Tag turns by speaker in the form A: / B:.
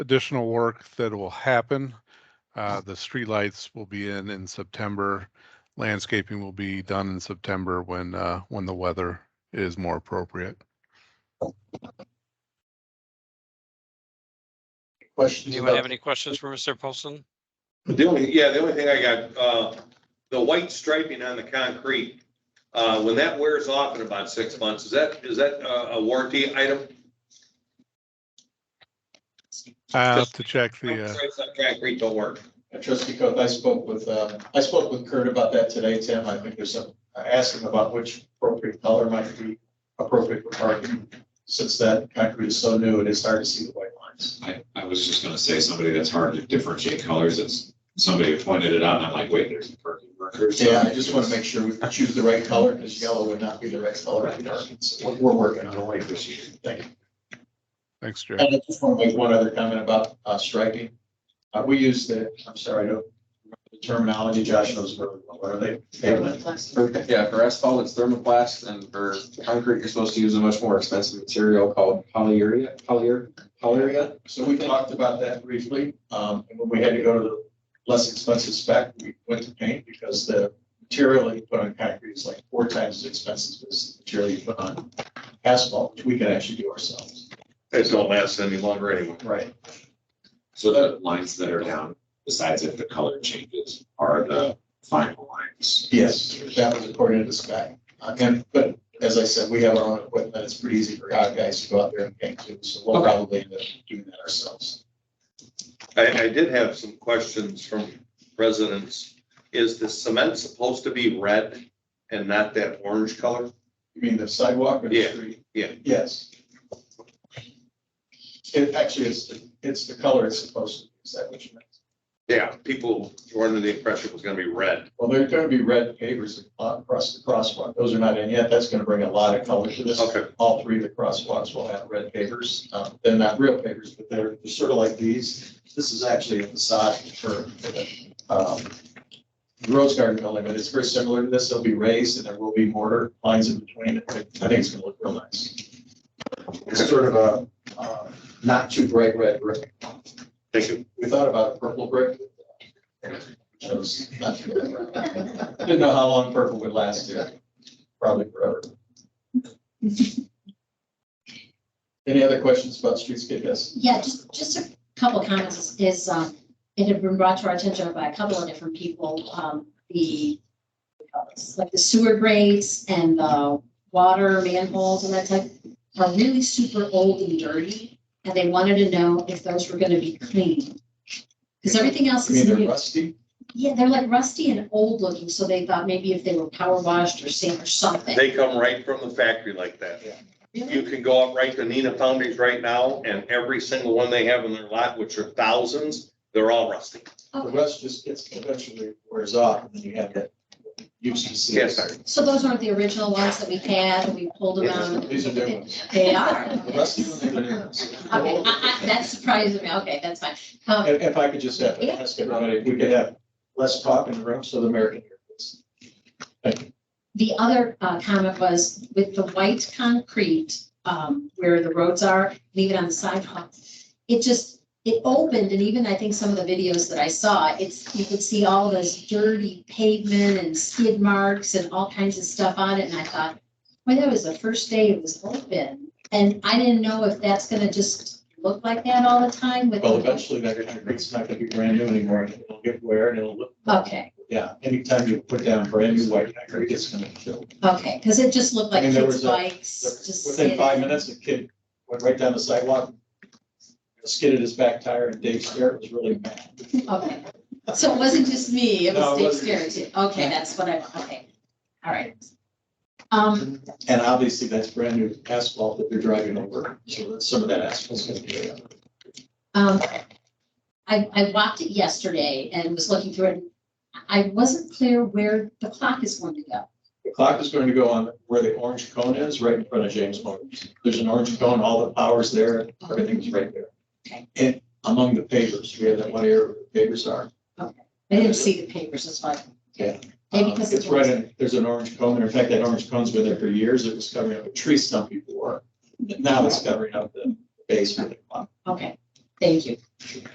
A: additional work that will happen. Uh, the streetlights will be in in September. Landscaping will be done in September when, uh, when the weather is more appropriate.
B: Questions?
C: Anyone have
B: about-
C: any questions for Mr. Poston?
D: The only, yeah, the only thing I got, uh, the white striping on the concrete, uh, when that wears off in about six months, is that, is that a a warranty item?
A: I have to check the, uh,
D: Stripes on concrete don't work.
B: Uh, Trustee Coe, I spoke with, um, I spoke with Kurt about that today, Tim. I think there's some, I asked him about which appropriate color might be appropriate for parking. Since that concrete is so new, it is hard to see the white lines.
E: I, I was just gonna say, somebody that's hard to differentiate colors, it's, somebody pointed it out, and I'm like, wait, there's a parking marker.
B: Yeah, I just want to make sure we choose the right color because yellow would not be the right color for parking. So we're- we're working on it.
E: wait this year.
B: Thank you.
A: thanks, Jerry.
B: And I just want to make one other comment about uh, striping. Uh, We use the, I'm sorry, I don't remember the terminology Josh knows really well, what are they?
F: For- Yeah, for asphalt, it's thermoplast, and for concrete, you're supposed to use a much more expensive material called polyurea, polyer, polyurea.
B: So we talked about that briefly, um, and when we had to go to the less expensive spec, we went to paint because the material you put on concrete is like four times as expensive as the material you put on asphalt, which we can actually do ourselves.
D: It don't last any longer anyway.
B: Right.
E: So the lines that are down, besides if the color changes, are the final lines.
B: Yes, that was according to the spec. Uh, And, but as I said, we have our own equipment. It's pretty easy for our guys to go out there and paint too, so we'll
F: Okay.
B: probably end up doing that ourselves.
D: I, I did have some questions from residents. Is the cement supposed to be red and not that orange color?
B: You mean the sidewalk or the
D: Yeah,
B: street?
D: yeah.
B: Yes. It actually is, the- it's the color it's supposed to be. Is that what you meant?
D: Yeah, people were under the impression it was gonna be red.
B: Well, there are gonna be red pavers across the crosswalk. Those are not in yet. That's gonna bring a lot of color to this.
D: Okay.
B: All three of the crosswalks will have red pavers. Um, they're not real pavers, but they're, they're sort of like these. This is actually a facade for, for the, um, Rose Garden building, but it's very similar to this. It'll be raised and there will be mortar lines in between. it. I think it's gonna look real nice. It's sort of a, uh, not too bright red brick.
D: Thank you.
B: We thought about a purple brick. Chose not to go that route. Didn't know how long purple would last, yeah, probably forever. Any other questions about streetscape, yes?
G: Yeah, just, just a couple of comments is- is, um, it had been brought to our attention by a couple of different people, um, the, like the sewer grates and the water manholes and that type are really super old and dirty, and they wanted to know if those were gonna be cleaned. Because everything else
B: I mean,
G: is
B: they're
G: new.
B: rusty,
G: Yeah, they're like rusty and old looking, so they thought maybe if they were power washed or sand or something.
D: They come right from the factory like that. You
G: Really?
D: can go up right to Nina Foundries right now, and every single one they have in their lot, which are thousands, they're all rusty.
B: the rust just gets eventually wears off, and then you have that used to see.
D: Yes, sir.
G: So those aren't the original ones that we had, and we pulled them out.
B: These are new ones.
G: They are.
B: The rusty ones are new ones.
G: Okay, I- I- that surprises me. Okay, that's fine. Um,
B: If, if I could just have, ask everyone, if we could have less talk in the room so the mayor can hear this.
G: The other uh, comment was with the white concrete um, where the roads are, leave it on the sidewalk. It just, it opened and even I think some of the videos that I saw, it's, you could see all this dirty pavement and skid marks and all kinds of stuff on it. And I thought, boy, that was the first day it was open. And I didn't know if that's going to just look like that all the time with.
B: Well, eventually that concrete's not gonna be brand new anymore, and it'll get wear and it'll look,
G: Okay,
B: yeah, anytime you put down brand new white concrete, it's gonna kill.
G: okay, because it just looked like
B: I mean, there
G: kids'
B: was a-
G: bikes, just.
B: Within five minutes, the kid went right down the sidewalk, skidded his back tire, and Dave Scarrett was really mad.
G: Okay, so it wasn't just me, it
B: No,
G: was
B: it
G: Dave
B: wasn't
G: Scarrett
B: just
G: too. Okay, that's what I, okay, all right. Um,
B: And obviously, that's brand new asphalt that they're driving over, so that's- some of that asphalt's gonna be. there.
G: um, I, I walked it yesterday and was looking through it. and I wasn't clear where the clock is going to go.
B: The clock is going to go on where the orange cone is, right in front of James Motors. There's an orange cone, all the power's there, everything's right there.
G: Okay.
B: And among the pavers, we have that one area where the pavers are.
G: I didn't see the papers, that's why.
B: Yeah.
G: Maybe
B: Um,
G: because
B: It's
G: it's.
B: right in, there's an orange cone, and in fact, that orange cone's been there for years, it was covering up a tree stump before. But Now it's covering up the base for the clock.
G: Okay, Thank you.